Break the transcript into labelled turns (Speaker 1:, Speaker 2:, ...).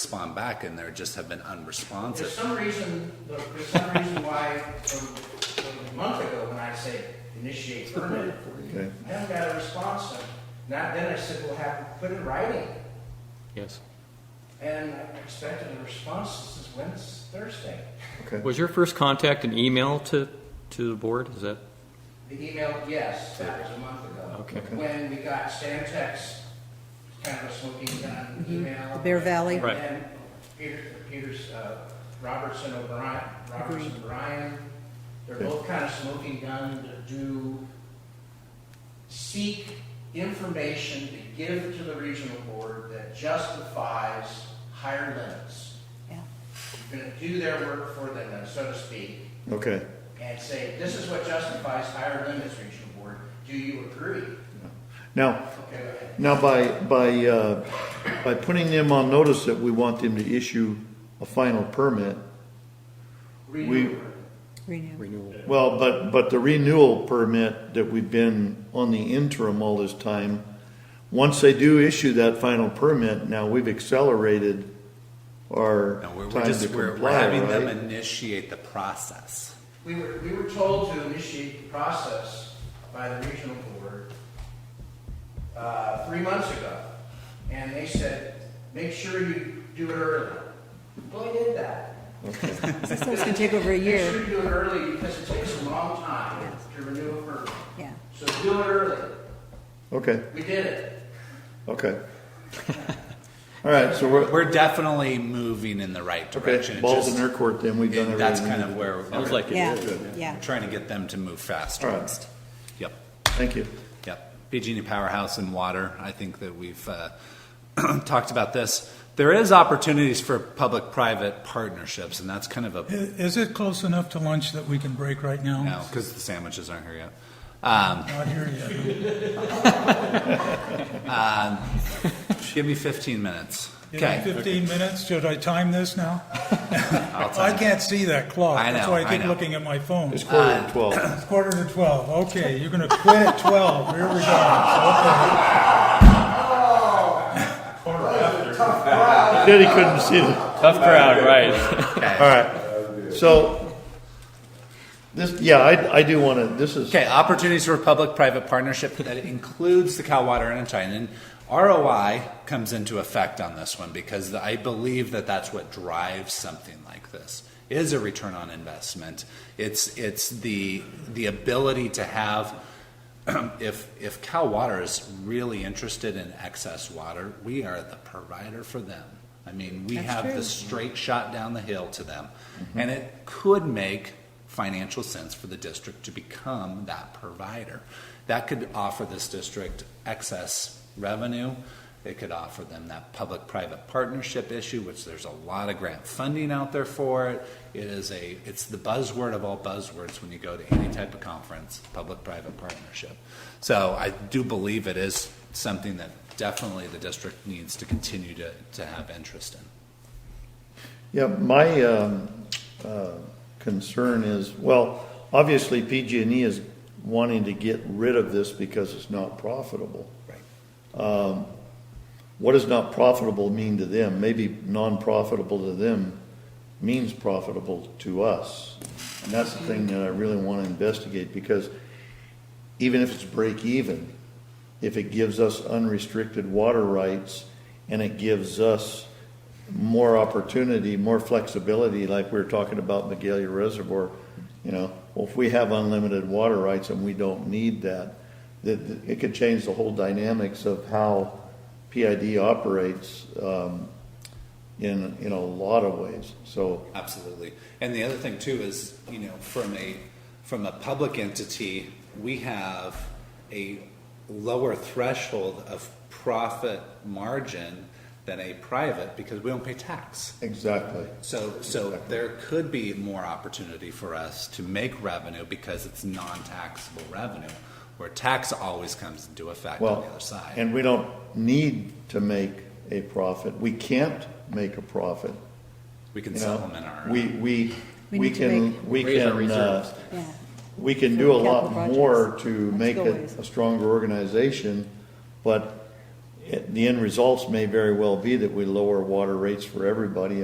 Speaker 1: respond back and there just have been unresponsive.
Speaker 2: There's some reason, look, there's some reason why from, from a month ago when I say initiate permit,
Speaker 3: Okay.
Speaker 2: I haven't got a response. And Not then I said, we'll have, put it in writing.
Speaker 4: Yes.
Speaker 2: And I expected a response, this is Wednesday, Thursday.
Speaker 3: Okay.
Speaker 4: Was your first contact an email to, to the board? Is that,
Speaker 2: The email, yes, that was a month ago.
Speaker 4: okay.
Speaker 2: When we got Stantec's kind of a smoking gun email.
Speaker 5: The Bear Valley.
Speaker 4: Right.
Speaker 2: And then Peter, Peter's, uh, Robertson O'Brien, Robertson O'Brien, they're both kind of smoking gun to do, seek information to give to the regional board that justifies higher limits.
Speaker 5: Yeah.
Speaker 2: You're gonna do their work for them, so to speak,
Speaker 3: Okay.
Speaker 2: and say, this is what justifies higher limits, regional board, do you agree?
Speaker 3: Now,
Speaker 2: Okay, go ahead.
Speaker 3: now by, by, uh, by putting them on notice that we want them to issue a final permit,
Speaker 2: Redo
Speaker 3: We-
Speaker 2: it.
Speaker 5: Renew.
Speaker 4: Renewal.
Speaker 3: well, but, but the renewal permit that we've been on the interim all this time, once they do issue that final permit, now we've accelerated our
Speaker 1: No, we're, we're
Speaker 3: time to
Speaker 1: just, we're, we're
Speaker 3: comply,
Speaker 1: having them
Speaker 3: right?
Speaker 1: initiate the process.
Speaker 2: We were, we were told to initiate the process by the regional board, uh, three months ago. And they said, make sure you do it early. Well, I did that.
Speaker 5: So it's gonna take over a
Speaker 2: Make sure
Speaker 5: year,
Speaker 2: you do it early because it takes a long time to renew a permit.
Speaker 5: yeah.
Speaker 2: So do it early.
Speaker 3: Okay,
Speaker 2: We did it.
Speaker 3: okay. All right, so we're,
Speaker 1: We're definitely moving in the right direction. It's
Speaker 3: okay, balls
Speaker 1: just-
Speaker 3: in their court then, we've done
Speaker 1: it-
Speaker 3: everything.
Speaker 1: That's
Speaker 3: we
Speaker 1: kind of
Speaker 3: need
Speaker 1: where.
Speaker 4: Sounds
Speaker 1: we're-
Speaker 4: like it.
Speaker 5: Yeah,
Speaker 3: good.
Speaker 5: yeah.
Speaker 1: Trying to get them to move faster.
Speaker 3: All right.
Speaker 1: Yep,
Speaker 3: to- Thank you.
Speaker 1: yep. PG&E Powerhouse and Water, I think that we've uh, talked about this. There is opportunities for public-private partnerships, and that's kind of a
Speaker 6: I- Is it close enough to lunch that we can break right now?
Speaker 1: No, because the sandwiches aren't here yet. Um,
Speaker 6: Not here yet.
Speaker 1: give me 15 minutes.
Speaker 6: Give me
Speaker 1: Okay.
Speaker 6: Fifteen minutes, should I time this now? I can't see that clock.
Speaker 1: I
Speaker 6: That's
Speaker 1: know,
Speaker 6: why
Speaker 1: I
Speaker 6: I keep
Speaker 1: know.
Speaker 6: looking at my phone.
Speaker 3: It's quarter
Speaker 1: uh,
Speaker 3: to twelve.
Speaker 6: It's quarter to twelve, okay, you're gonna quit at twelve, here we go.
Speaker 3: Said he couldn't see the.
Speaker 4: Tough crowd, right.
Speaker 3: All right. So, this, yeah, I, I do want to, this is,
Speaker 1: Okay, opportunities for public-private partnership that includes the Cal Water Enterprise. And ROI comes into effect on this one because I believe that that's what drives something like this is a return on investment. It's it's the the ability to have if if Cal Water is really interested in excess water, we are the provider for them. I mean, we have the straight shot down the hill to them, and it could make financial sense for the district to become that provider. That could offer this district excess revenue. It could offer them that public-private partnership issue, which there's a lot of grant funding out there for it. It is a, it's the buzzword of all buzzwords when you go to any type of conference, public-private partnership. So I do believe it is something that definitely the district needs to continue to, to have interest in.
Speaker 3: yeah, my, um, uh, concern is, well, obviously PG&E E is wanting to get rid of this because it's not profitable. Um,
Speaker 1: Right.
Speaker 3: What does not profitable mean to them? Maybe non-profitable to them means profitable to us. And that's the thing that I really want to investigate because even if it's break even, if it gives us unrestricted water rights and it gives us more opportunity, more flexibility, like we were talking about Magalia Reservoir, you know, well, if we have unlimited water rights and we don't need that, that, that it could change the whole dynamics of how PID operates, um, in, in a lot of ways. So,
Speaker 1: Absolutely. And the other thing too is, you know, from a from a public entity, we have a lower threshold of profit margin than a private because we don't pay tax.
Speaker 3: exactly.
Speaker 1: So so there could be more opportunity for us to make revenue because it's non-taxable revenue where tax always comes into effect on
Speaker 3: Well,
Speaker 1: the other side.
Speaker 3: and we don't need to make a profit. We can't make a profit.
Speaker 1: we can
Speaker 3: You know,
Speaker 1: supplement our
Speaker 3: we, we, we
Speaker 5: We need to
Speaker 3: can, we
Speaker 4: Raise our
Speaker 3: can,
Speaker 4: reserves.
Speaker 3: uh,
Speaker 5: Yeah.
Speaker 3: we can do a
Speaker 5: Capital
Speaker 3: lot
Speaker 5: projects.
Speaker 3: more to
Speaker 5: Let's
Speaker 3: make
Speaker 5: go
Speaker 3: it
Speaker 5: ways.
Speaker 3: a stronger organization, but it- the end results may very well be that we lower water rates for everybody